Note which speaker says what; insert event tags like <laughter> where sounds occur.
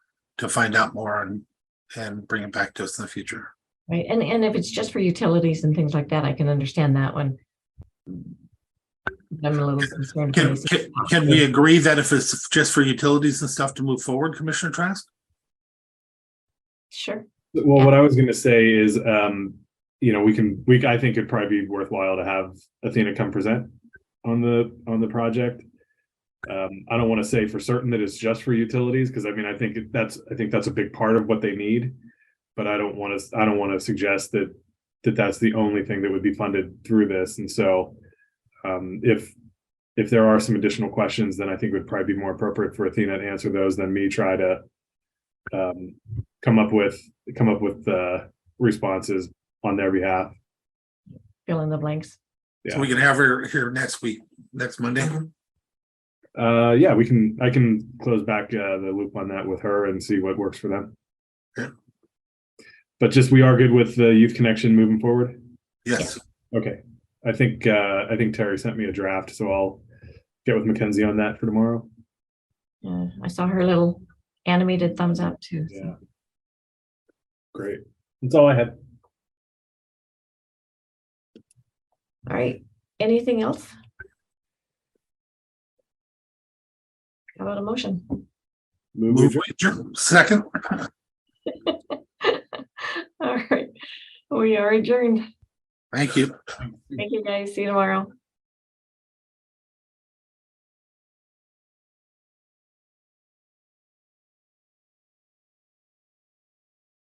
Speaker 1: to find out more and, and bring it back to us in the future.
Speaker 2: Right, and, and if it's just for utilities and things like that, I can understand that one. But I'm a little concerned.
Speaker 1: Can,
Speaker 2: because-
Speaker 1: can, can we agree that if it's just for utilities and stuff to move forward, Commissioner Trask?
Speaker 2: Sure,
Speaker 3: Well, what I was gonna say is, um, you know, we can, we, I think it'd probably be worthwhile to have Athena come present on the, on the project. Um, I don't wanna say for certain that it's just for utilities, cause I mean, I think that's, I think that's a big part of what they need. But I don't wanna, I don't wanna suggest that, that that's the only thing that would be funded through this, and so. Um, if, if there are some additional questions, then I think it would probably be more appropriate for Athena to answer those than me try to. Um, come up with come up with uh, responses on their behalf.
Speaker 2: fill in the blanks.
Speaker 1: So we can have her here next week, next Monday.
Speaker 3: Uh, yeah, we can. I can close back uh, the loop on that with her and see what works for them.
Speaker 1: Yeah.
Speaker 3: But just we are good with the youth connection moving forward.
Speaker 1: Yes,
Speaker 3: Okay, I think uh, I think Terry sent me a draft, so I'll get with Mackenzie on that for tomorrow.
Speaker 2: Uh, I saw her little animated thumbs up too. so.
Speaker 3: Yeah. Great. That's all I had.
Speaker 2: All right, anything else? How about a motion? <laughs>
Speaker 3: Move.
Speaker 1: move, adjourn. second,
Speaker 2: All right, we are adjourned.
Speaker 1: thank you.
Speaker 2: Thank you guys. See you tomorrow.